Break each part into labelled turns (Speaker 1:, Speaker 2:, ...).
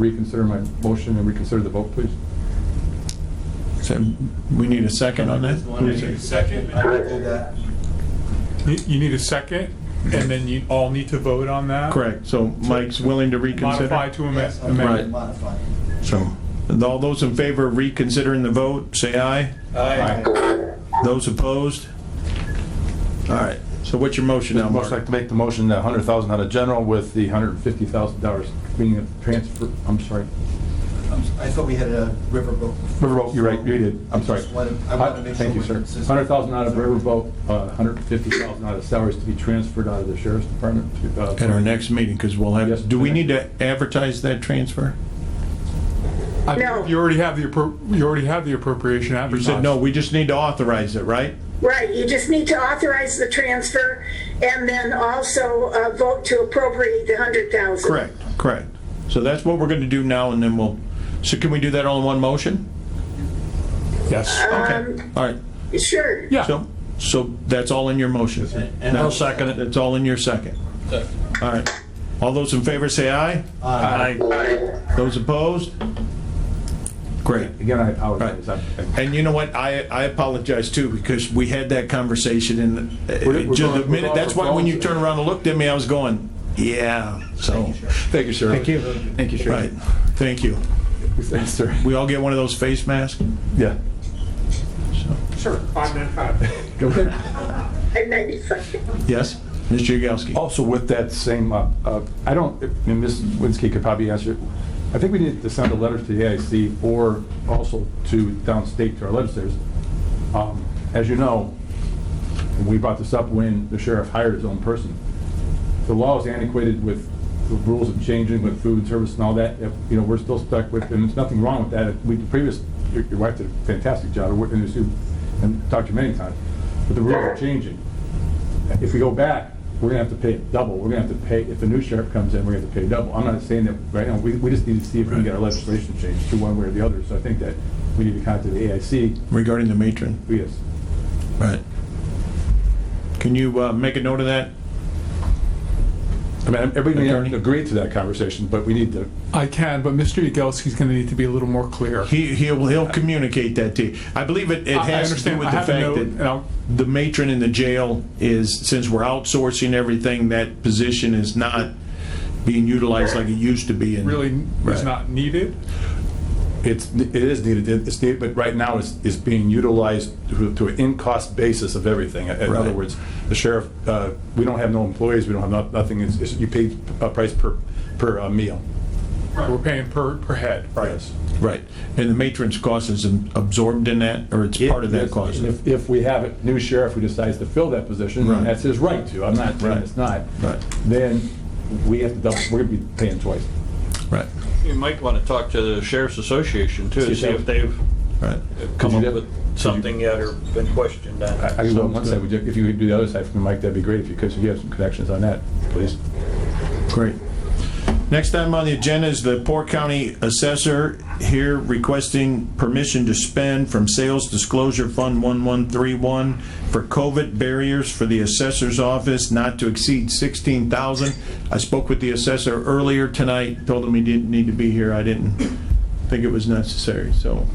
Speaker 1: reconsider my motion and reconsider the vote, please?
Speaker 2: So we need a second on that?
Speaker 3: One, I need a second, I will do that.
Speaker 4: You you need a second, and then you all need to vote on that?
Speaker 2: Correct, so Mike's willing to reconsider?
Speaker 4: Modify to amend.
Speaker 3: Yes, I'm going to
Speaker 2: Right.
Speaker 3: modify.
Speaker 2: So, and all those in favor of reconsidering the vote, say aye.
Speaker 3: Aye.
Speaker 2: Those opposed? All right, so what's your motion now,
Speaker 1: Most like
Speaker 2: Mark?
Speaker 1: to make the motion, that hundred thousand out of general with the hundred and fifty thousand dollars being a transfer, I'm sorry.
Speaker 3: I'm s- I thought we had a riverboat.
Speaker 1: Riverboat, you're right, you did, I'm sorry.
Speaker 3: Just wanted- I wanted to make sure
Speaker 1: Thank you,
Speaker 3: we're
Speaker 1: sir.
Speaker 3: consistent.
Speaker 1: Hundred thousand out of Riverboat, uh, hundred and fifty thousand out of salaries to be transferred out of the sheriff's department to, uh.
Speaker 2: At our next meeting, because we'll
Speaker 1: Yes.
Speaker 2: have, do we need to advertise that transfer?
Speaker 4: I
Speaker 5: No.
Speaker 4: believe You already have the, appro- you already have the appropriation
Speaker 2: You
Speaker 4: advertised.
Speaker 2: said, no, we just need to authorize it, right?
Speaker 5: Right, you just need to authorize the transfer and then also uh, vote to appropriate the hundred thousand.
Speaker 2: Correct, correct. So that's what we're going to do now, and then we'll, so can we do that all in one motion?
Speaker 4: Yes.
Speaker 2: Okay, all right.
Speaker 5: Sure.
Speaker 4: Yeah,
Speaker 2: So, so that's all in your motion?
Speaker 3: and I'll
Speaker 2: second it. That's all in your second? All right. All those in favor say aye.
Speaker 3: Aye.
Speaker 2: Those opposed? Great.
Speaker 1: Again, I apologize. I- I-
Speaker 2: And you know what? I, I apologize too, because we had that conversation and
Speaker 1: We're-
Speaker 2: uh,
Speaker 1: we're
Speaker 2: just
Speaker 1: going-
Speaker 2: a
Speaker 1: we're
Speaker 2: minute,
Speaker 1: going
Speaker 2: that's
Speaker 1: for
Speaker 2: why when you
Speaker 1: phones.
Speaker 2: turned around and looked at me, I was going, yeah, so.
Speaker 1: Thank you, sir. Thank you. Thank you, sir.
Speaker 2: Right, thank you.
Speaker 1: Thanks, sir.
Speaker 2: We all get one of those face masks?
Speaker 1: Yeah.
Speaker 5: Sure, five minutes, five.
Speaker 1: Okay.
Speaker 2: Yes? Mr. Yagowski?
Speaker 1: Also with that same, uh, uh, I don't, and Ms. Winsky could probably answer, I think we need to send a letter to the AIC or also to downstate to our legislators. Um, As you know, we brought this up when the sheriff hired his own person. The law is antiquated with the rules of changing with food and service and all that. If, You know, we're still stuck with, and there's nothing wrong with that. We, the previous, your your wife did a fantastic job, and you see- and talked to you many times, but the rules are changing if we go back, we're gonna have to pay double, we're gonna have to pay, if the new sheriff comes in, we're gonna have to pay double. I'm not saying that, right now, we, we just need to see if we can get our legislation changed to one way or the other, so I think that we need to contact the AIC,
Speaker 2: Regarding the matron?
Speaker 1: who is,
Speaker 2: Right. Can you uh, make a note of that?
Speaker 1: I mean, everybody
Speaker 2: Attorney?
Speaker 1: agreed to that conversation, but we need to,
Speaker 4: I can, but Mr. Yagelski's going to need to be a little more clear.
Speaker 2: He, he'll, he'll communicate that to you. I believe it, it
Speaker 4: I- I
Speaker 2: has to do
Speaker 4: understand.
Speaker 2: with
Speaker 4: I
Speaker 2: the
Speaker 4: have uh, a
Speaker 2: fact
Speaker 4: note, and
Speaker 2: that
Speaker 4: I'll-
Speaker 2: the matron in the jail is, since we're outsourcing everything, that position is not being utilized like it used to be. and-
Speaker 4: Really
Speaker 2: Right.
Speaker 4: is not needed.
Speaker 1: it's, it is needed, it's needed, but right now it's, it's being utilized to to an in-cost basis of everything. In other
Speaker 2: Right.
Speaker 1: words, the sheriff, uh, we don't have no employees, we don't have no- nothing, it's, it's- you pay a price per, per uh, meal.
Speaker 4: We're paying per, per head.
Speaker 1: Yes.
Speaker 2: Right. And the matron's cost is absorbed in that, or it's part of that
Speaker 1: Yes,
Speaker 2: cost?
Speaker 1: and If, if we have a new sheriff who decides to fill that position,
Speaker 2: Right.
Speaker 1: and that's his right to, I'm not saying
Speaker 2: Right.
Speaker 1: it's not.
Speaker 2: Right.
Speaker 1: Then we have to double, we're gonna be paying twice.
Speaker 2: Right,
Speaker 6: You might want to talk to the Sheriff's Association too,
Speaker 1: See
Speaker 6: to
Speaker 1: if
Speaker 6: see
Speaker 1: they-
Speaker 6: if they've
Speaker 2: right.
Speaker 1: Could
Speaker 6: come
Speaker 1: you
Speaker 6: up
Speaker 1: get-
Speaker 6: with
Speaker 1: could you-
Speaker 6: something yet or been questioned on.
Speaker 1: I, I can go on one side, would you- if you could do the other side for me, Mike, that'd be great, if you could, so you have some connections on that, please.
Speaker 2: Great. Next item on the agenda is the Port County Assessor here requesting permission to spend from Sales Disclosure Fund 1131 for COVID barriers for the assessor's office not to exceed 16,000. I spoke with the assessor earlier tonight, told him he didn't need to be here. I didn't think it was necessary, so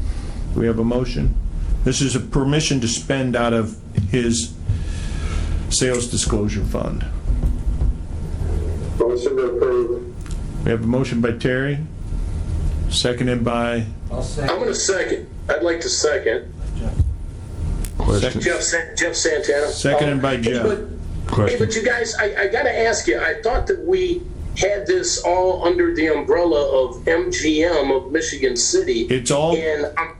Speaker 2: do we have a motion. This is a permission to spend out of his Sales Disclosure Fund.
Speaker 7: Motion to approve.
Speaker 2: We have a motion by Terry, seconded by,
Speaker 3: I'll
Speaker 7: I'm
Speaker 3: second.
Speaker 7: going to second. I'd like to second. Jeff, San- Jeff Santana.
Speaker 2: seconded by
Speaker 7: Hey,
Speaker 2: Jeff.
Speaker 7: but- Hey, but you guys, I, I got to ask you, I thought that we had this all under the umbrella of MGM of Michigan City.
Speaker 2: It's all, it-
Speaker 7: And I'm,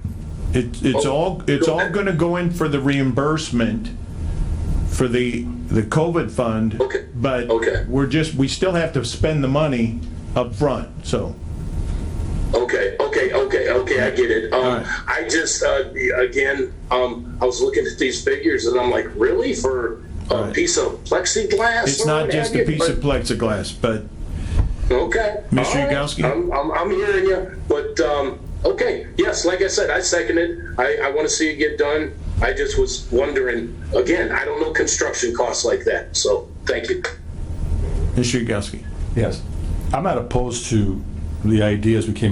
Speaker 2: it's
Speaker 7: Oh.
Speaker 2: all, it's all going to go in for the reimbursement for the, the COVID fund.
Speaker 7: Okay.
Speaker 2: But
Speaker 7: Okay.
Speaker 2: we're just, we still have to spend the money up front. so.
Speaker 7: okay, okay, okay, okay, I get it.
Speaker 2: All
Speaker 7: Um,
Speaker 2: right.
Speaker 7: I just, uh, again, um, I was looking at these figures and I'm like, really? For
Speaker 2: All
Speaker 7: a
Speaker 2: right.
Speaker 7: piece of plexiglass?
Speaker 2: It's
Speaker 7: or
Speaker 2: not
Speaker 7: what
Speaker 2: just
Speaker 7: have
Speaker 2: a
Speaker 7: you?
Speaker 2: piece
Speaker 7: But-
Speaker 2: of plexiglass, but
Speaker 7: Okay.
Speaker 2: Mr.
Speaker 7: All right.
Speaker 2: Yagowski?
Speaker 7: I'm, I'm, I'm hearing you, but, um, okay, yes, like I said, I second it. I, I want to see it get done. I just was wondering, again, I don't know construction costs like that, so thank you.
Speaker 2: Mr. Yagowski.
Speaker 1: Yes. I'm not opposed to the ideas we came